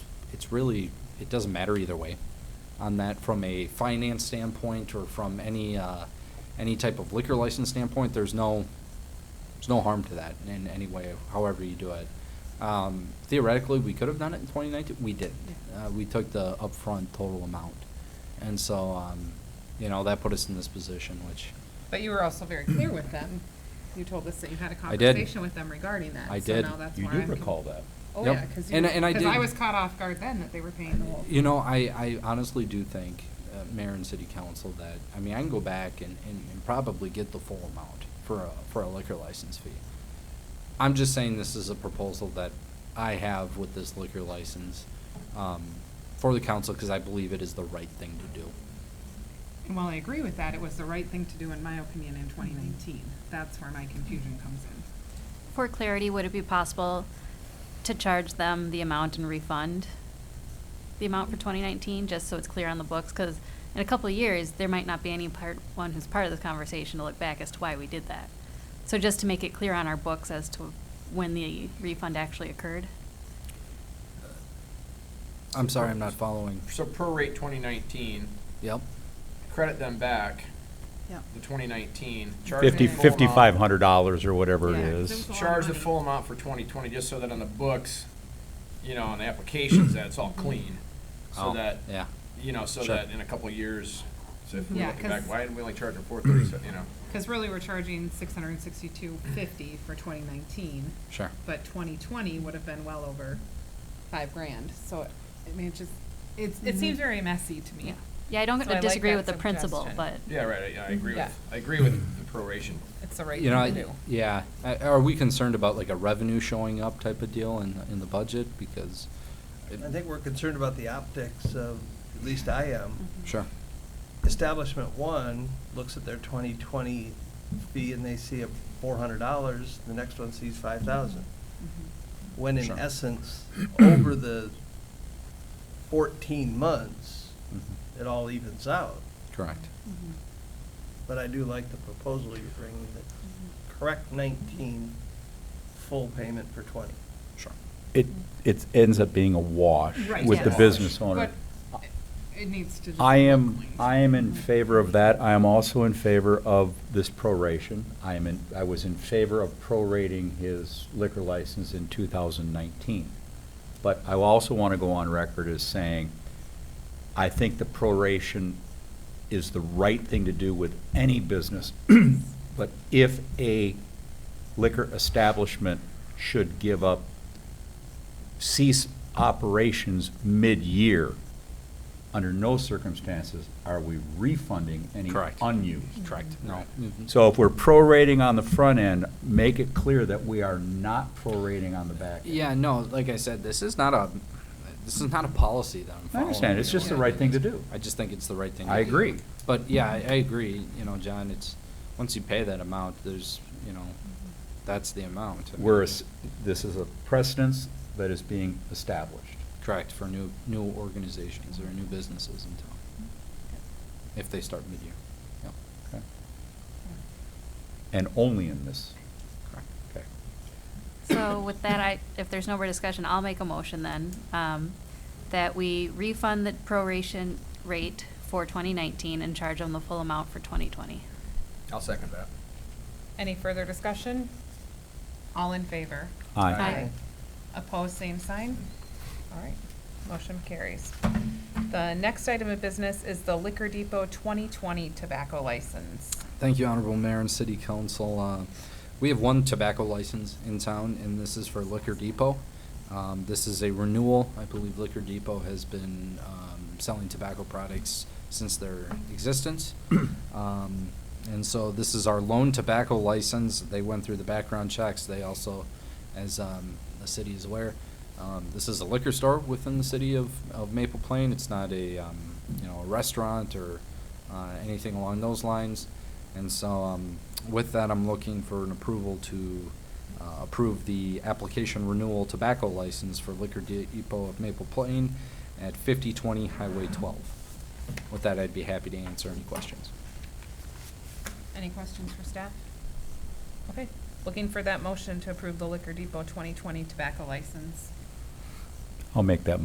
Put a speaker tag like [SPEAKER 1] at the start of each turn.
[SPEAKER 1] it's really, it doesn't matter either way on that from a finance standpoint or from any, uh, any type of liquor license standpoint, there's no, there's no harm to that in any way, however you do it. Um, theoretically, we could have done it in 2019. We didn't. Uh, we took the upfront total amount, and so um, you know that put us in this position, which
[SPEAKER 2] But you were also very clear with them. You told us that you had a
[SPEAKER 1] I did.
[SPEAKER 2] conversation with them regarding that.
[SPEAKER 1] I did.
[SPEAKER 2] So now that's
[SPEAKER 3] You
[SPEAKER 2] why
[SPEAKER 3] do
[SPEAKER 2] I'm con-
[SPEAKER 3] recall that.
[SPEAKER 2] Oh,
[SPEAKER 1] Yep.
[SPEAKER 2] yeah, because you,
[SPEAKER 1] And I- and I
[SPEAKER 2] because I
[SPEAKER 1] did-
[SPEAKER 2] was caught off guard then that they were paying the whole.
[SPEAKER 1] You know, I, I honestly do think, uh, mayor and city council, that, I mean, I can go back and, and, and probably get the full amount for a, for a liquor license fee. I'm just saying this is a proposal that I have with this liquor license, um, for the council, because I believe it is the right thing to do.
[SPEAKER 2] And while I agree with that, it was the right thing to do, in my opinion, in 2019. That's where my confusion comes in.
[SPEAKER 4] For clarity, would it be possible to charge them the amount and refund the amount for 2019, just so it's clear on the books? Because in a couple of years, there might not be any part, one who's part of this conversation to look back as to why we did that. So just to make it clear on our books as to when the refund actually occurred?
[SPEAKER 1] I'm sorry, I'm not following.
[SPEAKER 5] So prorate twenty nineteen,
[SPEAKER 1] Yep,
[SPEAKER 5] credit them back
[SPEAKER 2] Yep.
[SPEAKER 5] the twenty nineteen.
[SPEAKER 3] Fifty,
[SPEAKER 2] full
[SPEAKER 3] fifty-five hundred dollars or whatever it
[SPEAKER 2] Yeah, 'cause
[SPEAKER 3] is.
[SPEAKER 2] it was a lot of
[SPEAKER 5] Charge the
[SPEAKER 2] money.
[SPEAKER 5] full amount for twenty twenty, just so that on the books, you know, on the applications, that it's all
[SPEAKER 2] Mm-hmm.
[SPEAKER 5] clean. So
[SPEAKER 1] Oh,
[SPEAKER 5] that,
[SPEAKER 1] yeah.
[SPEAKER 5] you know, so
[SPEAKER 1] Sure.
[SPEAKER 5] that in a couple of years, so if we're
[SPEAKER 2] Yeah,
[SPEAKER 5] looking back,
[SPEAKER 2] 'cause-
[SPEAKER 5] why didn't we only charge them four thirty, you know?
[SPEAKER 2] Because really, we're charging 662.50 for 2019.
[SPEAKER 1] sure.
[SPEAKER 2] but 2020 would have been well over five grand. So, I mean, it just, it's,
[SPEAKER 1] Mm-hmm.
[SPEAKER 2] it seems very messy to me.
[SPEAKER 4] Yeah, Yeah, I don't
[SPEAKER 2] So I like
[SPEAKER 4] disagree
[SPEAKER 2] that
[SPEAKER 4] with the principle,
[SPEAKER 2] suggestion.
[SPEAKER 4] but.
[SPEAKER 5] Yeah, right, I, I agree
[SPEAKER 2] Yeah.
[SPEAKER 5] with, I agree with the proration.
[SPEAKER 2] It's the right
[SPEAKER 1] You know,
[SPEAKER 2] thing
[SPEAKER 1] I-
[SPEAKER 2] to do.
[SPEAKER 1] yeah, Uh, are we concerned about like a revenue showing up type of deal in, in the budget? Because. it-
[SPEAKER 6] I think we're concerned about the optics of, at least I am.
[SPEAKER 1] Sure,
[SPEAKER 6] Establishment one looks at their twenty twenty fee and they see a four hundred dollars, the next one sees five thousand.
[SPEAKER 2] Mm-hmm.
[SPEAKER 6] When in
[SPEAKER 1] Sure.
[SPEAKER 6] essence, over the fourteen months,
[SPEAKER 1] Mhm.
[SPEAKER 6] it all evens out.
[SPEAKER 1] correct.
[SPEAKER 6] But I do like the proposal you're bringing, that correct nineteen, full payment for twenty.
[SPEAKER 1] Sure.
[SPEAKER 3] It, it ends up being a wash
[SPEAKER 2] Right,
[SPEAKER 3] with the
[SPEAKER 2] yes.
[SPEAKER 3] business owner.
[SPEAKER 2] But it needs to. just
[SPEAKER 3] I
[SPEAKER 2] be
[SPEAKER 3] am,
[SPEAKER 2] clean.
[SPEAKER 3] I am in favor of that. I am also in favor of this proration. I am in, I was in favor of prorating his liquor license in 2019. But I also want to go on record as saying, I think the proration is the right thing to do with any business. But if a liquor establishment should give up, cease operations mid-year, under no circumstances are we refunding any
[SPEAKER 1] Correct.
[SPEAKER 3] unused.
[SPEAKER 1] Correct. No. Mhm.
[SPEAKER 3] So if we're prorating on the front end, make it clear that we are not prorating on the back end.
[SPEAKER 1] Yeah, no, like I said, this is not a, this is not a policy that I'm
[SPEAKER 3] I
[SPEAKER 1] following.
[SPEAKER 3] understand, it's just the
[SPEAKER 1] you know.
[SPEAKER 3] right thing to do.
[SPEAKER 1] I just think it's the right thing.
[SPEAKER 3] I
[SPEAKER 1] to do.
[SPEAKER 3] agree.
[SPEAKER 1] But yeah, I, I agree, you know, John, it's, once you pay that amount, there's, you know, that's the amount. I mean,
[SPEAKER 3] We're, es- this is a precedence that is being established.
[SPEAKER 1] Correct, for new, new organizations or new businesses in town, if they start mid-year. Yep,
[SPEAKER 3] Okay. And only in this.
[SPEAKER 1] correct.
[SPEAKER 3] Okay.
[SPEAKER 4] So with that, I, if there's no more discussion, I'll make a motion then, um, that we refund the proration rate for 2019 and charge them the full amount for 2020.
[SPEAKER 5] I'll second that.
[SPEAKER 7] Any further discussion?
[SPEAKER 2] All in favor?
[SPEAKER 3] Aye.
[SPEAKER 4] Aye.
[SPEAKER 2] Opposed, same sign?
[SPEAKER 7] All right, motion carries. The next item of business is the Liquor Depot 2020 tobacco license.
[SPEAKER 1] Thank you, Honorable Mayor and City Council. Uh, We have one tobacco license in town, and this is for Liquor Depot. Um, This is a renewal. I believe Liquor Depot has been um, selling tobacco products since their existence. Um, And so this is our lone tobacco license. They went through the background checks. They also, as um, the city is aware, um, this is a liquor store within the city of of Maple Plain. It's not a, um, you know, a restaurant or uh, anything along those lines. And so um, with that, I'm looking for an approval to uh, approve the application renewal tobacco license for Liquor Depot of Maple Plain at 5020 Highway 12. With that, I'd be happy to answer any questions.
[SPEAKER 7] Any questions for staff? Okay, looking for that motion to approve the Liquor Depot 2020 tobacco license.
[SPEAKER 3] I'll make that